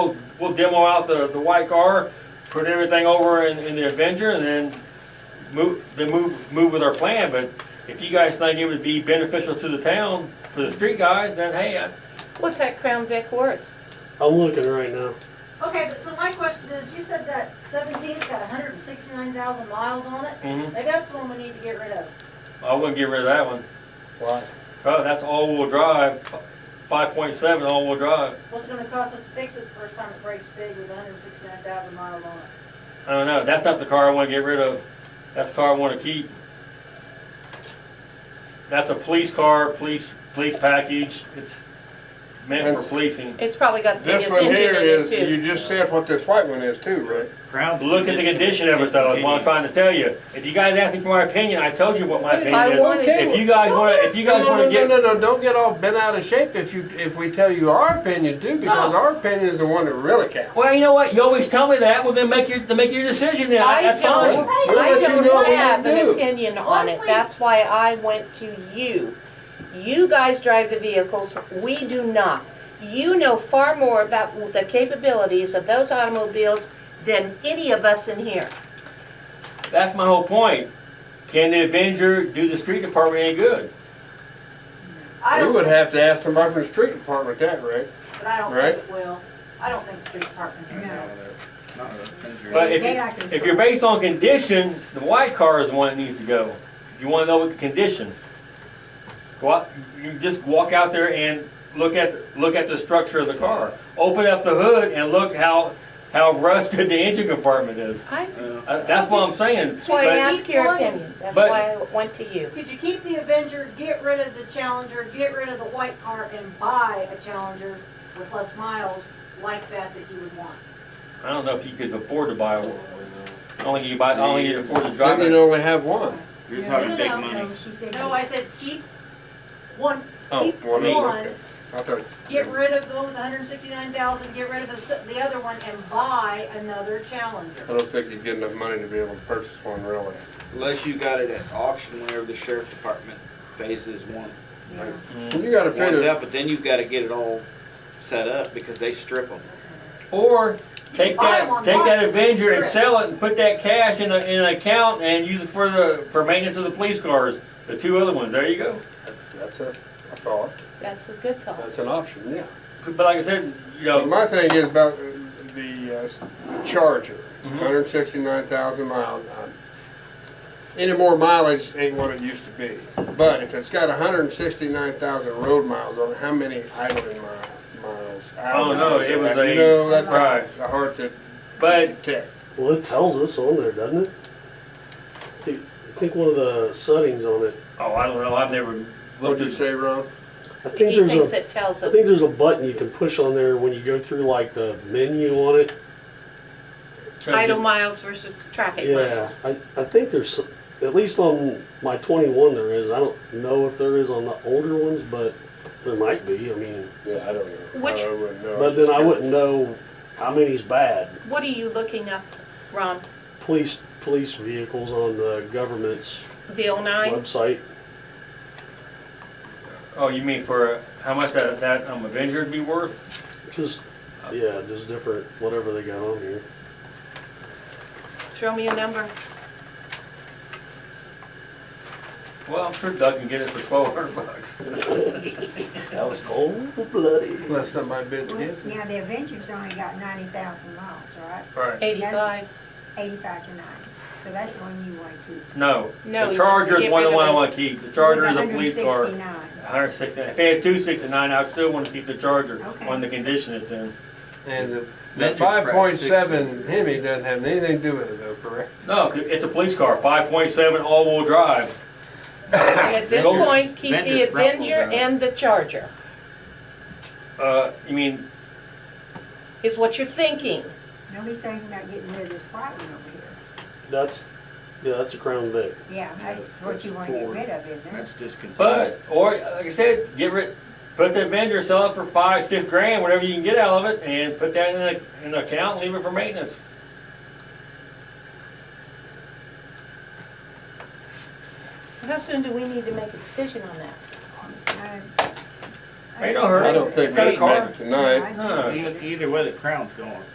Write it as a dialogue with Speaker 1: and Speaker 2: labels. Speaker 1: We'll- We'll demo out the, the white car, put everything over in, in the Avenger and then move, then move, move with our plan, but if you guys think it would be beneficial to the town for the street guys, then hey, I-
Speaker 2: What's that Crown Vic worth?
Speaker 3: I'm looking right now.
Speaker 4: Okay, but so my question is, you said that seventeen's got hundred and sixty-nine thousand miles on it.
Speaker 1: mhm,
Speaker 4: Maybe that's the one we need to get rid of.
Speaker 1: I wouldn't get rid of that one.
Speaker 3: Why?
Speaker 1: Oh, that's all-wheel drive, five point seven all-wheel drive.
Speaker 4: What's it gonna cost us to fix it the first time it breaks big with hundred and sixty-nine thousand miles on it?
Speaker 1: I don't know, that's not the car I wanna get rid of. That's the car I wanna keep. That's a police car, police, police package. It's meant for
Speaker 5: That's-
Speaker 1: policing.
Speaker 2: It's probably got the
Speaker 5: This
Speaker 2: biggest
Speaker 5: one here
Speaker 2: engine in it
Speaker 5: is,
Speaker 2: too.
Speaker 5: you just said what this white one is too, Rick.
Speaker 6: Crown.
Speaker 1: Look at the condition of it though, is what I'm trying to trying to tell you. If you guys ask me for my opinion, I told you what my
Speaker 2: I
Speaker 1: opinion is.
Speaker 2: wanted to.
Speaker 1: If you guys wanna, if you guys
Speaker 5: No, no,
Speaker 1: wanna
Speaker 5: no,
Speaker 1: get,
Speaker 5: no, no, don't get all bent out of shape if you, if we tell you our opinion too, because
Speaker 4: Oh.
Speaker 1: No.
Speaker 5: our opinion is the one that really counts.
Speaker 1: well, you know what, you always tell me that, well then make your, then make your decision then,
Speaker 2: I
Speaker 1: that's
Speaker 2: don't-
Speaker 1: fine.
Speaker 5: We'll
Speaker 2: I
Speaker 5: let you know what
Speaker 2: don't
Speaker 5: we
Speaker 2: have an
Speaker 5: do.
Speaker 2: opinion on it, that's why I went to you. You guys drive the vehicles, we do not. You know far more about the capabilities of those automobiles than any of us in here.
Speaker 1: That's my whole point. Can the Avenger do the street department any good?
Speaker 4: I
Speaker 5: We
Speaker 4: don't,
Speaker 5: would have to ask somebody from the street department that, Rick.
Speaker 4: but I don't think it will. I don't think the street department can help.
Speaker 1: But if,
Speaker 4: They act
Speaker 1: you-
Speaker 4: in
Speaker 1: if you're based on condition, the white car is the one that needs to go. If you wanna know what the condition, go out, you just walk out there and look at, look at the structure of the car. Open up the hood and look how, how rusted the engine compartment is.
Speaker 2: I,
Speaker 1: Uh, That's what I'm saying.
Speaker 2: that's why I
Speaker 1: But-
Speaker 2: asked your opinion, that's
Speaker 1: but-
Speaker 2: why I went to you.
Speaker 4: Could you keep the Avenger, get rid of the Challenger, get rid of the white car, and buy a Challenger with less miles like that that you would want?
Speaker 1: I don't know if you could afford to buy one. I don't think you buy, I don't think you can afford to drive
Speaker 5: Then you'd
Speaker 1: it.
Speaker 5: only have one.
Speaker 6: You're
Speaker 4: No, no,
Speaker 6: talking big
Speaker 4: no,
Speaker 6: money.
Speaker 4: no, she said- No, I said keep one,
Speaker 5: Oh,
Speaker 4: keep
Speaker 5: one,
Speaker 4: one,
Speaker 5: okay. I thought,
Speaker 4: get rid of the one with hundred and sixty-nine thousand, get rid of the, s- the other one, and buy another Challenger.
Speaker 5: I don't think you'd get enough money to be able to purchase one really.
Speaker 6: Unless you got it at auction whenever the sheriff department phases one. Like,
Speaker 5: You gotta
Speaker 6: one's
Speaker 5: figure,
Speaker 6: out, but then you've gotta get it all set up because they strip them.
Speaker 1: Or take
Speaker 4: Buy
Speaker 1: that,
Speaker 4: one,
Speaker 1: take
Speaker 4: buy
Speaker 1: that
Speaker 4: it.
Speaker 1: Avenger and
Speaker 4: Sure.
Speaker 1: sell it and put that cash in a, in an account and use it for the, for maintenance of the police cars. The two other ones, there you go.
Speaker 5: that's, that's a, a thought,
Speaker 2: That's a good thought.
Speaker 5: that's an option, yeah.
Speaker 1: But like I said, you
Speaker 5: But
Speaker 1: know,
Speaker 5: My thing is about the uh, s- Charger,
Speaker 1: Mm-hmm.
Speaker 5: 169,000 miles. on- uh, Any more mileage ain't what it used to be. But if it's got 169,000 road miles on it, how many idling mi- miles? I
Speaker 1: don't know. Oh, It was a-
Speaker 5: You know, that's
Speaker 1: Right.
Speaker 5: a hard to
Speaker 1: but
Speaker 5: detect.
Speaker 3: Well, it tells us on there, doesn't it? I think one of the settings on it.
Speaker 1: oh, I don't know. I've never
Speaker 5: What'd
Speaker 1: looked
Speaker 5: you
Speaker 1: at.
Speaker 5: say, Ron?
Speaker 3: I think
Speaker 2: He
Speaker 3: there's
Speaker 2: thinks
Speaker 3: a.
Speaker 2: it tells
Speaker 3: I
Speaker 2: us.
Speaker 3: think there's a button you can push on there when you go through like the menu on it.
Speaker 2: Idle miles versus traffic
Speaker 3: Yeah,
Speaker 2: miles.
Speaker 3: I, I think there's s- at least on my 21 there is. I don't know if there is on the older ones, but there might be. I mean,
Speaker 5: Yeah, I don't know.
Speaker 2: Which-
Speaker 5: I wouldn't know.
Speaker 3: but then I wouldn't know how many's bad.
Speaker 2: What are you looking up, Ron?
Speaker 3: Police police vehicles on the government's
Speaker 2: Bill nine?
Speaker 3: website.
Speaker 1: Oh, you mean for how much that, that um, Avenger would be worth?
Speaker 3: Just, yeah, just different, whatever they got on here.
Speaker 2: Throw me a number.
Speaker 1: Well, I'm sure Doug can get it for twelve hundred bucks.
Speaker 3: That was cold bloody.
Speaker 5: Unless somebody bids
Speaker 7: Well,
Speaker 5: against it.
Speaker 7: Now, the Avengers only got ninety thousand miles, right?
Speaker 1: Right.
Speaker 2: Eighty-five.
Speaker 7: Eighty-five to ninety, so that's the one you want to keep.
Speaker 1: No.
Speaker 2: No,
Speaker 1: The
Speaker 2: he wants to
Speaker 1: Charger is
Speaker 2: get
Speaker 1: one of the
Speaker 2: rid
Speaker 1: one I
Speaker 2: of it.
Speaker 1: wanna keep. The Charger is a police car.
Speaker 7: 169.
Speaker 1: Hundred sixty, if they had two sixty-nine, I'd still wanna keep the Charger
Speaker 7: Okay.
Speaker 1: on the condition it's in.
Speaker 5: And the- the
Speaker 6: That's probably
Speaker 5: 5.7 Hemi doesn't have anything to do with it though, correct?
Speaker 1: No, 'cause it's a police car, five point seven all-wheel drive.
Speaker 2: And at this
Speaker 1: Go-
Speaker 2: point, keep the
Speaker 6: Avengers grapple
Speaker 2: Avenger
Speaker 6: gun.
Speaker 2: and the Charger,
Speaker 1: Uh, you mean,
Speaker 2: is what you're thinking.
Speaker 7: Nobody's thinking about getting rid of this white one over here.
Speaker 3: That's, yeah, that's a Crown Vic.
Speaker 7: Yeah, that's what you want to get rid of, isn't it?
Speaker 6: That's discontinued.
Speaker 1: but, or, like I said, get rid, put the Avenger, sell it for five, six grand, whatever you can get out of it, and put that in a, in an account, and leave it for maintenance.
Speaker 2: How soon do we need to make a decision on that?
Speaker 7: Uh,
Speaker 8: Ain't no hurry.
Speaker 1: I don't think
Speaker 8: Got a
Speaker 1: we can
Speaker 8: car?
Speaker 1: make it tonight.
Speaker 5: No, I think-
Speaker 6: Either e-, way, the crown's going.